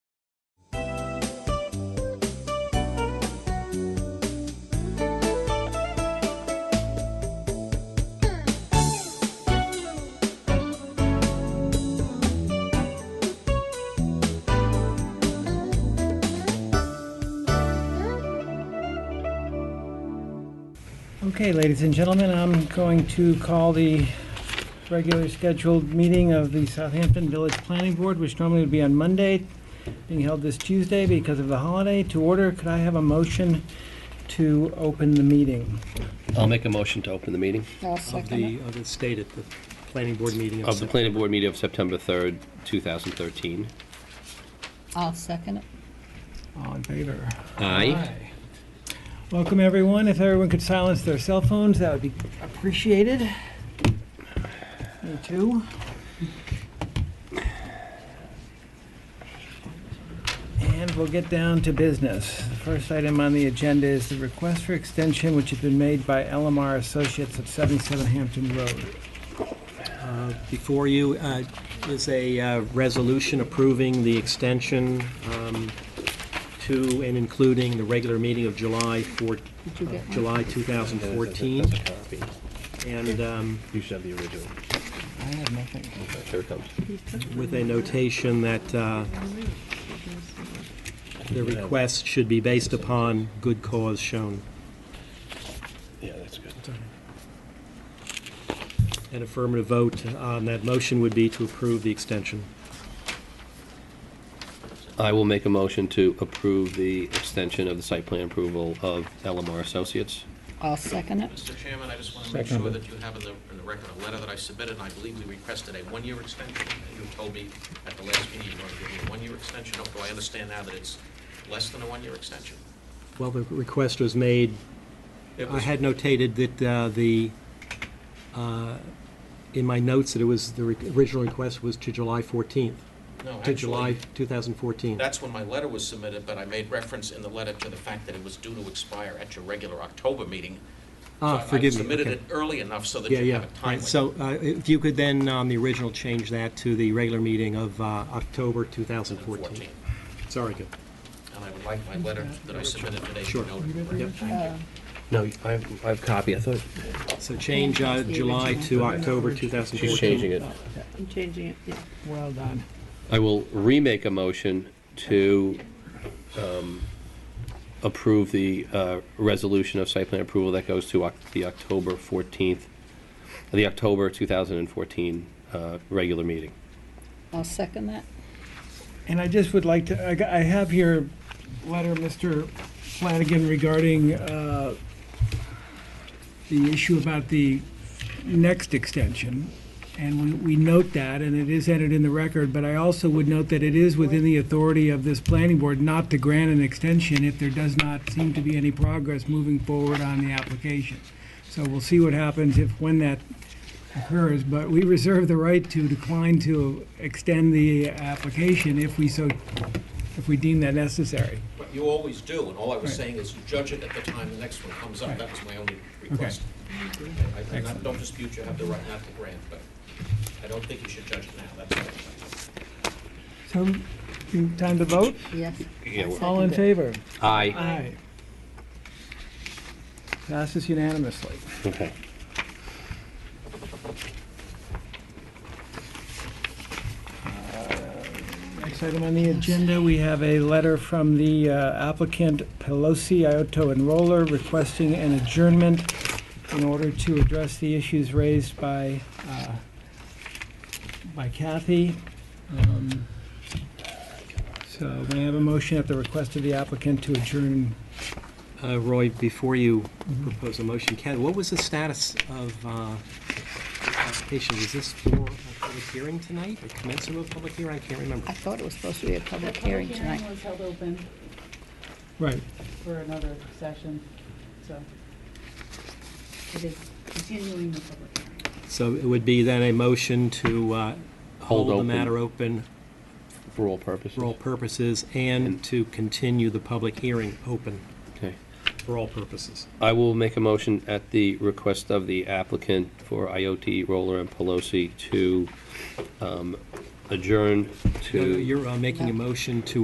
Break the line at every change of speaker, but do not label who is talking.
Okay, ladies and gentlemen, I'm going to call the regular scheduled meeting of the Southampton Village Planning Board, which normally would be on Monday, being held this Tuesday because of the holiday, to order. Could I have a motion to open the meeting?
I'll make a motion to open the meeting
I'll
of
second
the,
it.
of the state at the planning board meeting.
of the planning board meeting of September 3rd, 2013.
I'll second it.
All in favor?
Aye.
Welcome, everyone. If everyone could silence their cell phones, that would be appreciated. Me too. And we'll get down to business. The first item on the agenda is the request for extension which has been made by LMR Associates of 77 Hampton Road.
Uh, Before you uh, is a uh, resolution approving the extension um, to and including the regular meeting of July 4,
Did you get one?
July 2014. And um,
You should have the original.
I have nothing.
Here it comes.
with a notation that uh, the request should be based upon good cause shown.
Yeah, that's good.
An affirmative vote on that motion would be to approve the extension.
I will make a motion to approve the extension of the site plan approval of LMR Associates.
I'll second it.
Mr. Chairman, I just want to make sure that you have in the, in the record a letter that I submitted, and I believe we requested a one-year extension. You told me at the last meeting you wanted to give me a one-year extension, although I understand now that it's less than a one-year extension.
Well, the request was made,
It
I
was-
had notated that uh, the, uh, in my notes, that it was, the re- original request was to July 14th,
No,
to July
actually,
2014.
that's when my letter was submitted, but I made reference in the letter to the fact that it was due to expire at your regular October meeting.
Ah,
So I-
forgive me,
I submitted
okay.
it early enough so that
Yeah,
you
yeah.
have it timely.
So uh, if you could then, on the original, change that to the regular meeting of uh, October 2014.
14.
Sorry, good.
And I would like my letter that I submitted today to
Sure.
be noted. in the record.
Uh,
No, I have, I have copy, I thought.
So change uh, July to October 2014.
She's changing it.
I'm changing it, yeah.
Well done.
I will remake a motion to um, approve the uh, resolution of site plan approval that goes to Oc- the October 14th, the October 2014 uh, regular meeting.
I'll second that.
And I just would like to, I got- I have your letter, Mr. Flanagan, regarding uh, the issue about the next extension. And we we note that, and it is entered in the record, but I also would note that it is within the authority of this planning board not to grant an extension if there does not seem to be any progress moving forward on the application. So we'll see what happens if, when that occurs, but we reserve the right to decline to extend the application if we so, if we deem that necessary.
But you always do, and all I was
Right.
saying is you judge it at the time the next one comes up. That was my only request. I- I not- don't dispute you have the right not to grant, but I don't think you should judge it now. That's all.
So, you- time to vote?
Yes.
Yeah, we're-
All in
Seconded.
favor?
Aye.
Aye. Passes unanimously.
Okay.
Next item on the agenda, we have a letter from the uh, applicant Pelosi Ioto and Roller requesting an adjournment in order to address the issues raised by, uh, by Kathy. Um, So may I have a motion at the request of the applicant to adjourn?
Uh, Roy, before you propose a motion, Ken, what was the status of uh, the application? Was this for a public hearing tonight, or commencement of a public hearing? I can't remember.
I thought it was supposed to be a
The
public
public
hearing
hearing
tonight.
was held open
Right.
for another session, so it is continuing the public hearing.
So it would be then a motion to uh,
Hold
hold the
open.
matter open
For all purposes.
for all purposes and to continue the public hearing open
Okay.
for all purposes.
I will make a motion at the request of the applicant for IOT Roller and Pelosi to um, adjourn to.
No, no, You're uh, making a motion to